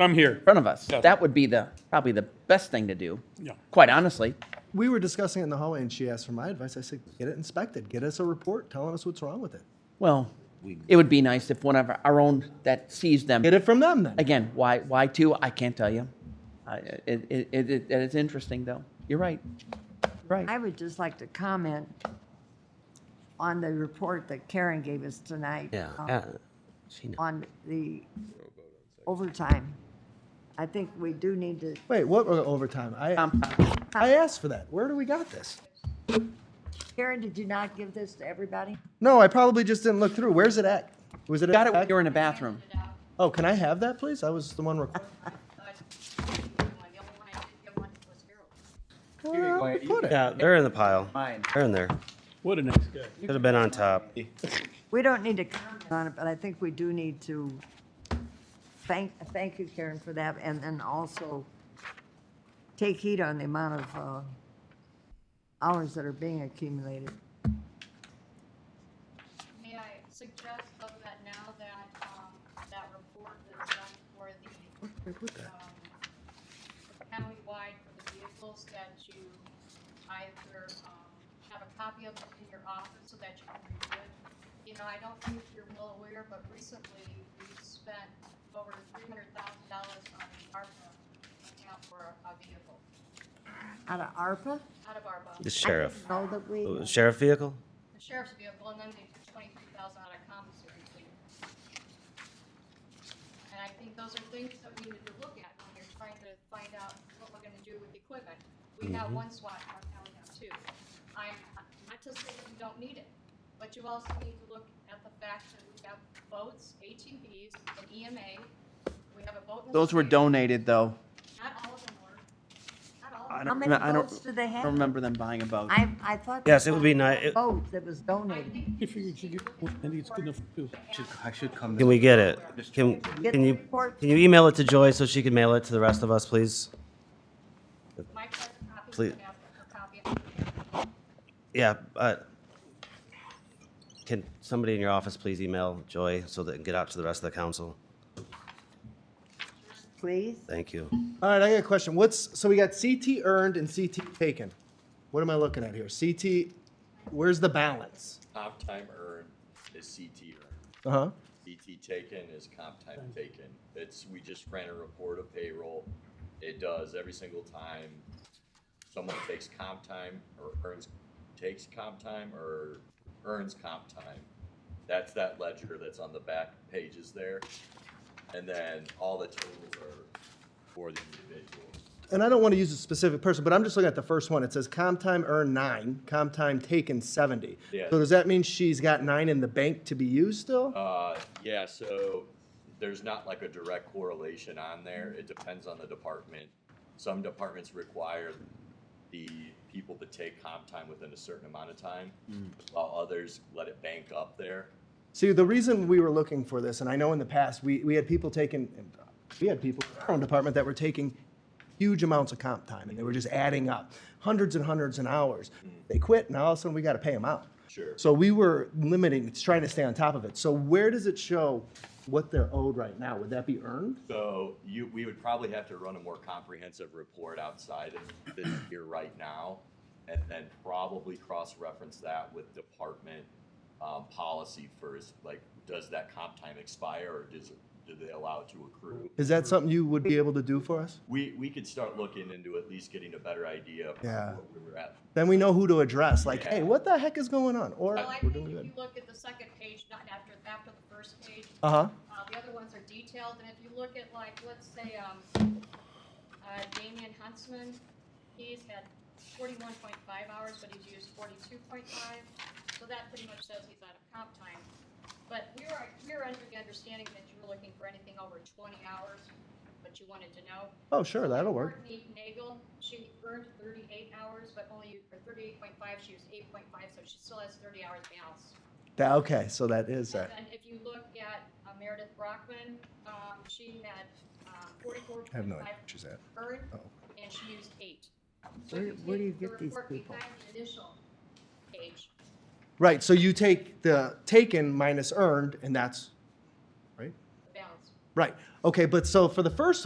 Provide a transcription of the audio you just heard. I'm here. front of us. Yeah. That would be the, probably the best thing to do, Yeah. quite honestly. We were discussing it in the hallway, and she asked for my advice. I said, "Get it inspected. Get us a report telling us what's wrong with it. Well, it would be nice if one of our own that sees them. Get it from them then." Again, why, why two? I can't tell you. I, it, it, it, it is interesting though. You're right. Right. I would just like to comment on the report that Karen gave us tonight. uh, Yeah. She knows. On the overtime. I think we do need to, Wait, what were overtime? I Um, I asked for that. Where do we got this? Karen, did you not give this to everybody? No, I probably just didn't look through. Where's it at? Was it Got at? it when you were in the bathroom. oh, can I have that, please? I was the one. Requ- Where I put it? Yeah, they're in the pile. Mine. They're in there. What a nice guy. Should have been on top. We don't need to comment on it, but I think we do need to thank, thank you, Karen, for that, and then also take heed on the amount of uh, hours that are being accumulated. May I suggest though that now that, um, that report that's done for the, um, countywide for the vehicles, that you either, um, have a copy of it in your office so that you can review it. You know, I don't think you're well aware, but recently we spent over three hundred thousand dollars on the ARPA account for a vehicle, Out of ARPA? out of ARPA, The the sheriff. Oh, Know that we, Sheriff vehicle? sheriff's vehicle, and then they took twenty-three thousand out of commissary fleet. And I think those are things that we need to look at when you're trying to find out what we're gonna do with equipment. We have Mm-hmm. one SWAT car, now we have two. I'm, not to say that we don't need it, but you also need to look at the fact that we have boats, ATVs, an EMA, we have a boat. in the Those were street. donated though. Not all of them were, not all of I them. how don't, many I votes don't do they have? remember them buying a boat. I, I thought. Yes, it would be nice. it- Boat that was I donated. think I figured you get one. I think it's good enough too. I should come. Can we get it? Can, can you, can you email it to Joy so she can mail it to the rest of us, please? Mike has a copy, Please. you can have a copy. Yeah, uh, can somebody in your office please email Joy so that it can get out to the rest of the council? Please? Thank you. All right, I got a question. What's so we got CT earned and CT taken? What am I looking at here? CT, where's the balance? Comp time earned is CT earned. Uh huh. CT taken is comp time taken. It's, we just ran a report of payroll. It does every single time someone takes comp time or earns, takes comp time or earns comp time. That's that ledger that's on the back pages there. And then all the totals are for the individuals. And I don't want to use a specific person, but I'm just looking at the first one. It says comp time earned nine, comp time taken 70. Yeah. So does that mean she's got nine in the bank to be used still? Uh, yeah, so there's not like a direct correlation on there. It depends on the department. Some departments require the people to take comp time within a certain amount of time, while others let it bank up there. See, the reason we were looking for this, and I know in the past, we, we had people taking, we had people in our own department that were taking huge amounts of comp time and they were just adding up hundreds and hundreds and hours. They quit and all of a sudden we got to pay them out. Mm. Sure. So we were limiting, it's trying to stay on top of it. So where does it show what they're owed right now? Would that be earned? So you, we would probably have to run a more comprehensive report outside of this year right now, and then probably cross-reference that with department, um, policy first, like, does that comp time expire, or does, it- do they allow it to accrue? Is that something you would be able to do for us? We, we could start looking into at least getting a better idea of Yeah. where we were at. Then we know who to address, like, Yeah. hey, what the heck is going on? Or Well, Oh, I we're think doing if good. you look at the second page, not after, after the first page, Uh huh. uh, the other ones are detailed, and if you look at like, let's say, um, uh, Damian Huntsman, he's had forty-one point five hours, but he's used forty-two point five, so that pretty much says he's out of comp time. But we are, we are under the understanding that you were looking for anything over twenty hours, but you wanted to know. Oh, sure, that'll work. Courtney Nagel, she earned thirty-eight hours, but only, for thirty-eight point five, she used eight point five, so she still has thirty hours balance. That, okay, so that is And that. then if you look at uh, Meredith Brockman, um, she had, um, forty-four point I have no idea five where she's at. earned, Oh. and she used eight. So Where- if you where do take you the get these report people? Behind the initial page, Right, so you take the taken minus earned, and that's, right? the balance. Right, okay, but so for the first